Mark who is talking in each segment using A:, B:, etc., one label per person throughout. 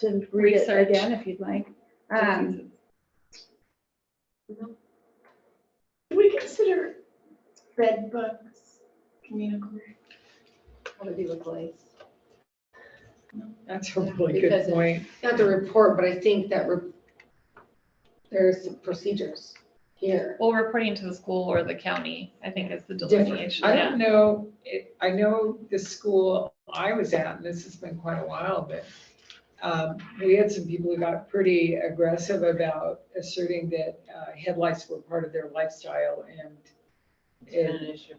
A: to read it
B: Research.
A: again if you'd like. Um,
C: Do we consider red books communicable?
D: What would be the place?
E: That's a really
D: Because
E: good
D: it-
E: point.
D: Not the report, but I think that re- there's procedures here.
B: Well, reporting to the school or the county, I think is the
E: Different.
B: delineation.
E: I
B: Yeah.
E: don't know, it- I know the school I was at, and this has been quite a while, but um, we had some people who got pretty aggressive about asserting that uh, headlights were part of their lifestyle and
F: It's been
E: it-
F: an issue.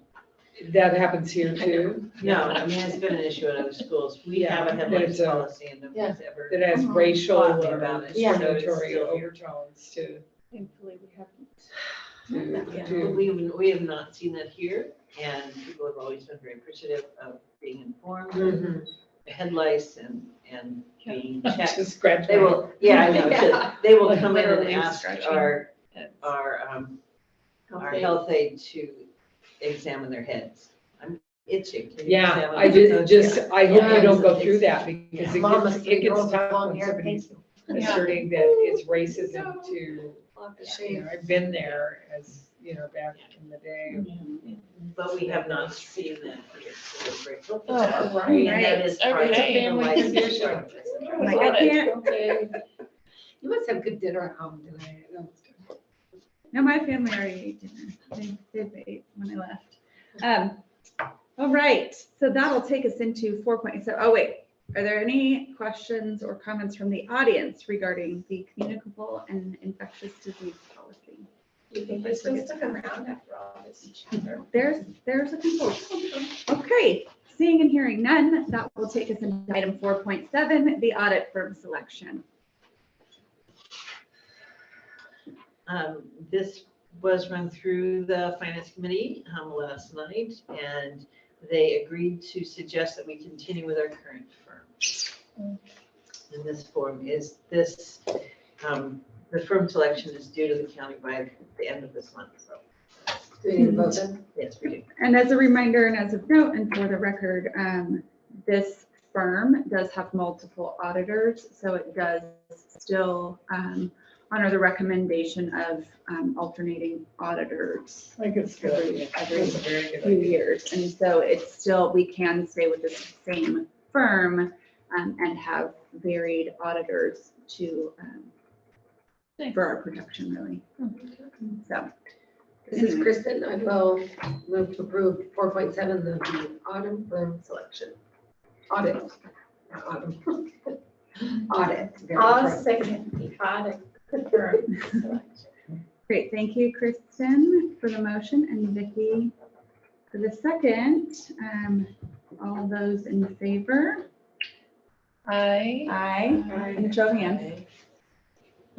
E: that happens here too,
F: No, I mean, it's been an issue in other schools. We
E: Yeah,
F: have a
E: there's
F: headlights
E: a-
F: policy and nobody's ever.
E: that has
C: Mhm.
E: racial or
F: Talk about it,
D: Uh-huh. Yeah.
F: so it's
E: discriminatory
F: still here.
E: overtones to,
A: Thankfully, we haven't.
E: to,
F: Yeah, but
E: to.
F: we, have- we have not seen that here, and people have always been very appreciative of being informed,
E: Mm.
F: of
D: Mhm.
F: the headlights and, and being checked.
E: Just scratch.
F: They
E: my-
F: will, yeah, I know, so they will come in and
B: Literally
F: ask
B: stretching.
F: our,
B: It's-
F: our, um, our
D: Okay.
F: health aide to examine their heads. I'm itching. Can you
E: Yeah,
F: examine
E: I
F: my
E: did,
F: head?
E: just, I hope you
D: Yeah.
E: don't go through that because it
D: Mama,
E: gets, it
D: girls
E: gets
D: with
E: tough
D: long
E: when
D: hair,
E: somebody's
B: Yeah.
E: asserting that it's racism to,
D: We'll have to
E: you
D: shave.
E: know, I've been there as, you know, back in the day.
F: But we have not seen that here, so we're grateful for
B: Oh,
F: that.
B: right.
F: And that is part of
B: Every
F: the
B: family
F: life
B: condition.
F: structure.
D: Like,
B: Love
D: I
B: it.
D: can't. okay. You must have good dinner at home tonight.
A: No, my family already ate dinner. They, they ate when I left. Um, all right, so that'll take us into four point, so, oh wait, are there any questions or comments from the audience regarding the communicable and infectious disease policy?
C: You think they still stuck around after all this chatter?
A: There's, there's a people. Okay, seeing and hearing none, that will take us into item four point seven, the audit firm selection.
F: Um, this was run through the finance committee, um, last night, and they agreed to suggest that we continue with our current firm. And this form is this, um, the firm selection is due to the county by the end of this month, so,
D: Do we need a vote then?
F: yes, we do.
A: And as a reminder and as of note and for the record, um, this firm does have multiple auditors, so it does still, um, honor the recommendation of, um, alternating auditors
E: I think it's
A: every,
E: good.
A: every
E: It's a very good
A: few
E: idea.
A: years. And so it's still, we can stay with the same firm, um, and have varied auditors to, um,
B: Nice.
A: for our protection really. So,
D: This is Kristen. I will move to approve four point seven, the autumn firm selection. Audit. Not autumn. Audit. very
C: I'll
D: correct.
C: second the audit firm selection.
A: Great, thank you, Kristen, for the motion and Vicky for the second. Um, All those in favor?
B: I,
A: Aye. And show of hands.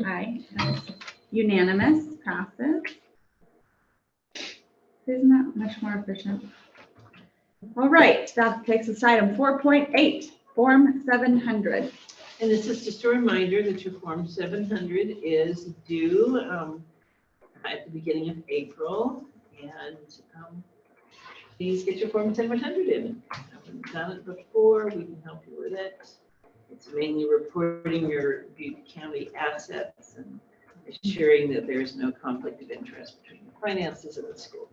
A: Aye. That's Unanimous, passes. Isn't that much more efficient? All right, that takes us to item 4.8, Form 700.
F: And this is just a reminder that your Form 700 is due um, at the beginning of April. And um, please get your Form 700 in. If you Haven't done it before, we can help you with it. It's mainly reporting your Butte County assets and assuring that there is no conflict of interest between the finances of the school.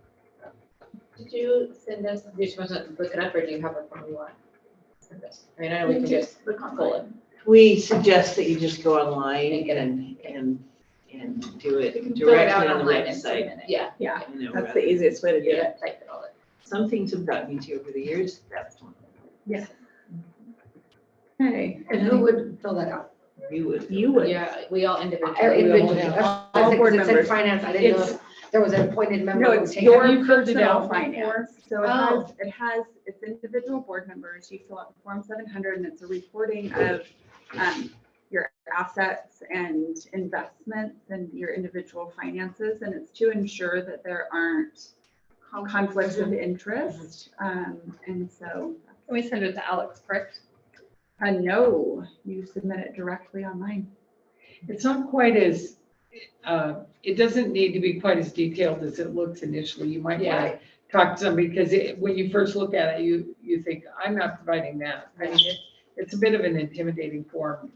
D: Did you send us, did you want to look it up or do you have it from you want? Send us. I mean, I know we can just
C: Look on
D: pull it.
F: We suggest that you just go online
D: And get it.
F: and, and, and do
C: You can
F: it
C: fill it out
F: directly on the
C: online and submit
F: website.
C: it.
D: Yeah,
F: you know,
A: That's the easiest way to do it.
D: yeah, type it all in.
F: Some things have gotten me to over the years, that's one.
A: Okay.
D: And who would fill that out?
F: You would.
A: You would.
D: Yeah, we all individually.
E: all
D: Individually.
E: have-
D: That's
A: all
D: what I said, 'cause
A: board
D: it said
A: members.
D: Finance, I didn't know
E: It's-
D: if there was an appointed member.
A: No,
D: who
A: it's
D: would take
E: your
D: it.
E: Have you filled it
A: personal
E: out
A: finance. So it
D: Oh.
A: has, it has, it's individual board members. You fill out Form 700 and it's a reporting of um, your assets and investments and your individual finances. And it's to ensure that there aren't conflicts of interest. Um, And so,
B: we send it to Alex, correct?
A: uh, no, you submit it directly online.
E: It's not quite as, uh, it doesn't need to be quite as detailed as it looks initially. You might want to talk to somebody because it, when you first look at it, you, you think, I'm not providing that. I mean, it's, it's a bit of an intimidating form